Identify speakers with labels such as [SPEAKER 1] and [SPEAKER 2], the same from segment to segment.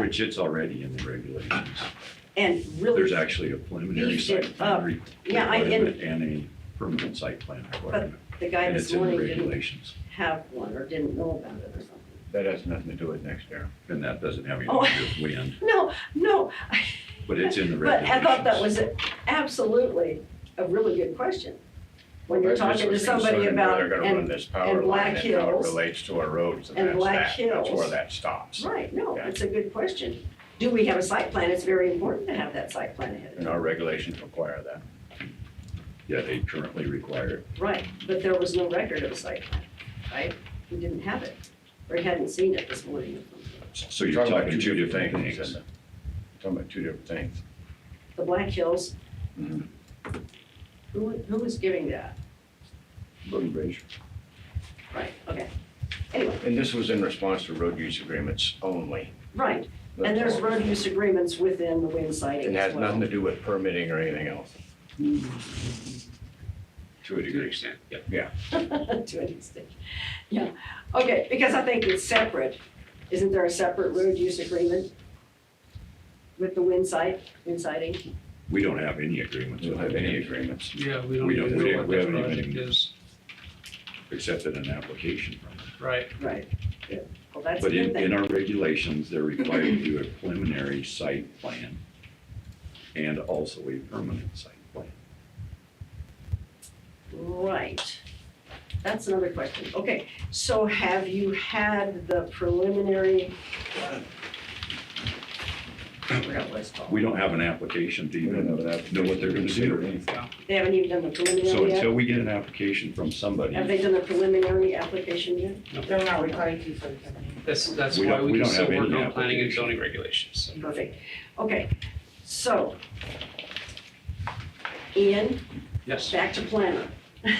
[SPEAKER 1] Which it's already in the regulations.
[SPEAKER 2] And
[SPEAKER 1] There's
[SPEAKER 2] really,
[SPEAKER 1] actually a preliminary
[SPEAKER 2] Beefed it
[SPEAKER 1] site plan
[SPEAKER 2] up.
[SPEAKER 1] re-
[SPEAKER 2] uh, Yeah, I- and-
[SPEAKER 1] requirement and a permanent site plan requirement.
[SPEAKER 2] the guy
[SPEAKER 1] And
[SPEAKER 2] this
[SPEAKER 1] it's in the
[SPEAKER 2] morning didn't
[SPEAKER 1] regulations,
[SPEAKER 2] have one or didn't know about it or something.
[SPEAKER 3] That has nothing to do with next year.
[SPEAKER 1] and that doesn't have
[SPEAKER 2] Oh.
[SPEAKER 1] anything to do with wind,
[SPEAKER 2] No, no,
[SPEAKER 1] but it's in the
[SPEAKER 2] but
[SPEAKER 1] regulations.
[SPEAKER 2] I thought that was absolutely a really good question. When you're
[SPEAKER 3] This
[SPEAKER 2] talking to
[SPEAKER 3] was
[SPEAKER 2] somebody
[SPEAKER 3] concerning where
[SPEAKER 2] about,
[SPEAKER 3] They're gonna run
[SPEAKER 2] and,
[SPEAKER 3] this power
[SPEAKER 2] and Black
[SPEAKER 3] line and how it
[SPEAKER 2] Hills.
[SPEAKER 3] relates to our roads and
[SPEAKER 2] And
[SPEAKER 3] that's
[SPEAKER 2] Black
[SPEAKER 3] that. That's where
[SPEAKER 2] Hills.
[SPEAKER 3] that stops.
[SPEAKER 2] right, no,
[SPEAKER 3] Yeah.
[SPEAKER 2] it's a good question. Do we have a site plan? It's very important to have that site plan ahead of
[SPEAKER 3] And our regulations require that.
[SPEAKER 1] Yeah, they currently require it.
[SPEAKER 2] time. Right, but there was no record of a site plan, right? We didn't have it, or he hadn't seen it this morning. or something.
[SPEAKER 1] So you're
[SPEAKER 3] about
[SPEAKER 1] talking two different
[SPEAKER 3] isn't
[SPEAKER 1] things.
[SPEAKER 3] it? Talking about two different things.
[SPEAKER 2] The Black Hills,
[SPEAKER 3] Mhm.
[SPEAKER 2] who, who was giving that?
[SPEAKER 3] Road and bridge.
[SPEAKER 2] Right, okay. Anyway,
[SPEAKER 3] And this was in response to road use agreements only.
[SPEAKER 2] right, and
[SPEAKER 3] That's
[SPEAKER 2] there's
[SPEAKER 1] uh,
[SPEAKER 3] all.
[SPEAKER 2] road use agreements within the wind siting
[SPEAKER 3] And
[SPEAKER 2] as
[SPEAKER 3] has nothing
[SPEAKER 2] well.
[SPEAKER 3] to do with permitting or anything else.
[SPEAKER 1] To a degree. Yeah.
[SPEAKER 2] To an extent, yeah. Okay, because I think it's separate. Isn't there a separate road use agreement with the wind site, wind siting?
[SPEAKER 1] We don't have any agreements.
[SPEAKER 3] We don't
[SPEAKER 1] with
[SPEAKER 3] have any
[SPEAKER 1] them,
[SPEAKER 3] agreements.
[SPEAKER 4] Yeah, we don't
[SPEAKER 1] We don't-
[SPEAKER 4] even
[SPEAKER 1] we
[SPEAKER 4] know
[SPEAKER 1] don't-
[SPEAKER 4] what
[SPEAKER 1] we
[SPEAKER 4] that
[SPEAKER 1] haven't even-
[SPEAKER 4] project is,
[SPEAKER 1] Except in an application from it.
[SPEAKER 4] right,
[SPEAKER 2] Right, yeah. Well, that's a
[SPEAKER 1] But
[SPEAKER 2] good
[SPEAKER 1] in, in
[SPEAKER 2] thing.
[SPEAKER 1] our regulations, they're required to do a preliminary site plan and also a permanent site plan.
[SPEAKER 2] Right. That's another question. Okay, so have you had the preliminary? uh, I forgot what it's called.
[SPEAKER 1] We don't have an application to
[SPEAKER 3] We don't
[SPEAKER 1] even
[SPEAKER 3] have an application.
[SPEAKER 1] know what they're gonna do.
[SPEAKER 2] They haven't even done the
[SPEAKER 1] So
[SPEAKER 2] preliminary yet?
[SPEAKER 1] until we get an application from somebody,
[SPEAKER 2] Have they done the preliminary application yet?
[SPEAKER 5] They're not required to for the company.
[SPEAKER 4] that's, that's
[SPEAKER 1] We
[SPEAKER 4] why
[SPEAKER 1] don't-
[SPEAKER 4] we
[SPEAKER 1] we
[SPEAKER 4] can
[SPEAKER 1] don't
[SPEAKER 4] still
[SPEAKER 1] have
[SPEAKER 4] work
[SPEAKER 1] any
[SPEAKER 4] on planning and
[SPEAKER 1] application.
[SPEAKER 4] zoning regulations.
[SPEAKER 2] Perfect. Okay, so. Ian,
[SPEAKER 4] Yes,
[SPEAKER 2] back to planner.
[SPEAKER 4] all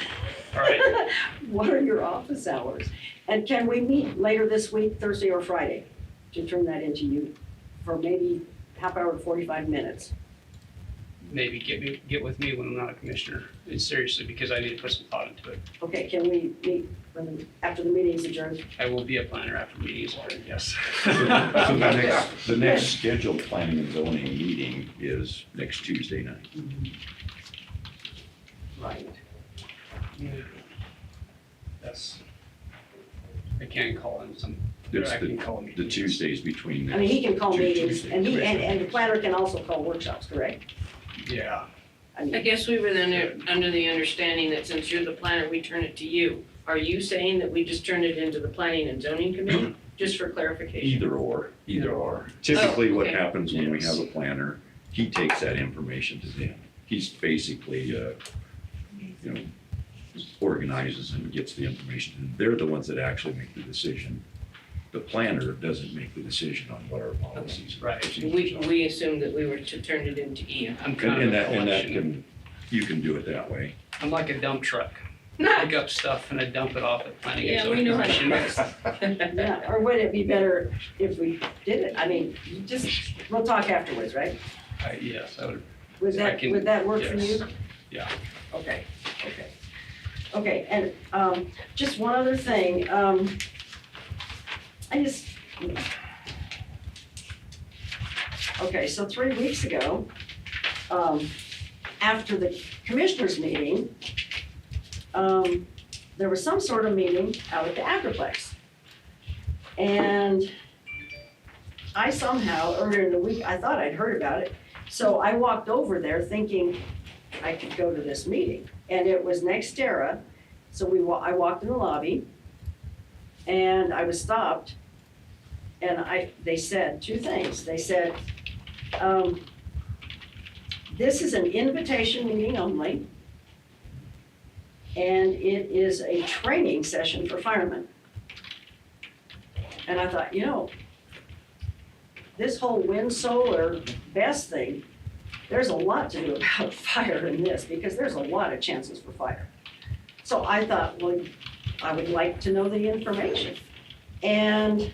[SPEAKER 4] right,
[SPEAKER 2] What are your office hours? And can we meet later this week, Thursday or Friday, to turn that into you for maybe half hour, to forty-five minutes?
[SPEAKER 4] maybe get me, get with me when I'm not a commissioner, and seriously, because I need to put some thought into it.
[SPEAKER 2] Okay, can we meet when the- after the meeting's adjourned?
[SPEAKER 4] I will be a planner after meetings, are, yes.
[SPEAKER 1] so the next, the next scheduled planning and zoning meeting is next Tuesday night.
[SPEAKER 2] Right.
[SPEAKER 4] Yes. I can call in some, or
[SPEAKER 1] It's
[SPEAKER 4] I can
[SPEAKER 1] the,
[SPEAKER 4] call me.
[SPEAKER 1] the Tuesdays between.
[SPEAKER 2] I mean, he can call
[SPEAKER 1] Two
[SPEAKER 2] meetings
[SPEAKER 1] Tuesdays,
[SPEAKER 2] and he, and,
[SPEAKER 1] Tuesdays.
[SPEAKER 2] and the planner can also call workshops, correct?
[SPEAKER 4] Yeah,
[SPEAKER 2] I
[SPEAKER 5] I
[SPEAKER 2] mean,
[SPEAKER 5] guess we were then under the understanding that since you're the planner, we turn it to you. Are you saying that we just turn it into the planning and zoning committee? Just for clarification.
[SPEAKER 1] Either or, either or.
[SPEAKER 5] Oh,
[SPEAKER 1] Typically,
[SPEAKER 5] okay.
[SPEAKER 1] what happens when we
[SPEAKER 4] Yes.
[SPEAKER 1] have a planner, he takes that information to them. He's basically, uh, you know, organizes and gets the information. They're the ones that actually make the decision. The planner doesn't make the decision on what our policies and
[SPEAKER 4] Right.
[SPEAKER 5] We,
[SPEAKER 1] procedures are.
[SPEAKER 5] we assumed that we were to turn it into E Ian.
[SPEAKER 4] I'm
[SPEAKER 1] And and
[SPEAKER 4] kind of a
[SPEAKER 1] that, and that
[SPEAKER 4] collection,
[SPEAKER 1] can, you can do it that way.
[SPEAKER 4] I'm like a dump truck,
[SPEAKER 5] No,
[SPEAKER 4] pick up stuff and I dump it off at planning and
[SPEAKER 5] Yeah,
[SPEAKER 4] zoning
[SPEAKER 5] we know how to
[SPEAKER 4] commission.
[SPEAKER 2] yeah, or would it be better if we did it? I mean, you just, we'll talk afterwards, right?
[SPEAKER 4] Uh, Yes, I would
[SPEAKER 2] Would
[SPEAKER 4] I
[SPEAKER 2] that,
[SPEAKER 4] can-
[SPEAKER 2] would that work for
[SPEAKER 4] yes.
[SPEAKER 2] you?
[SPEAKER 4] Yeah.
[SPEAKER 2] Okay, okay. Okay, and, um, just one other thing, um, I just. Okay, so three weeks ago, um, after the commissioners meeting, um, there was some sort of meeting out at the Agriplex. And I somehow, earlier in the week, I thought I'd heard about it, so I walked over there thinking I could go to this meeting, and it was Nextera. So we, wa- I walked in the lobby, and I was stopped, and I, they said two things. They said, um, this is an invitation meeting only, and it is a training session for firemen. And I thought, you know, this whole wind, solar, best thing, there's a lot to do about fire in this, because there's a lot of chances for fire. So I thought, well, I would like to know the information. And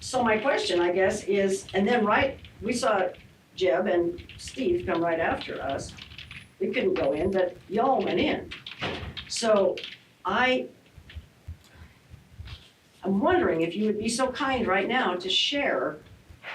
[SPEAKER 2] so my question, I guess, is, and then right, we saw Jeb and Steve come right after us. We couldn't go in, but y'all went in. So I, I'm wondering if you would be so kind right now to share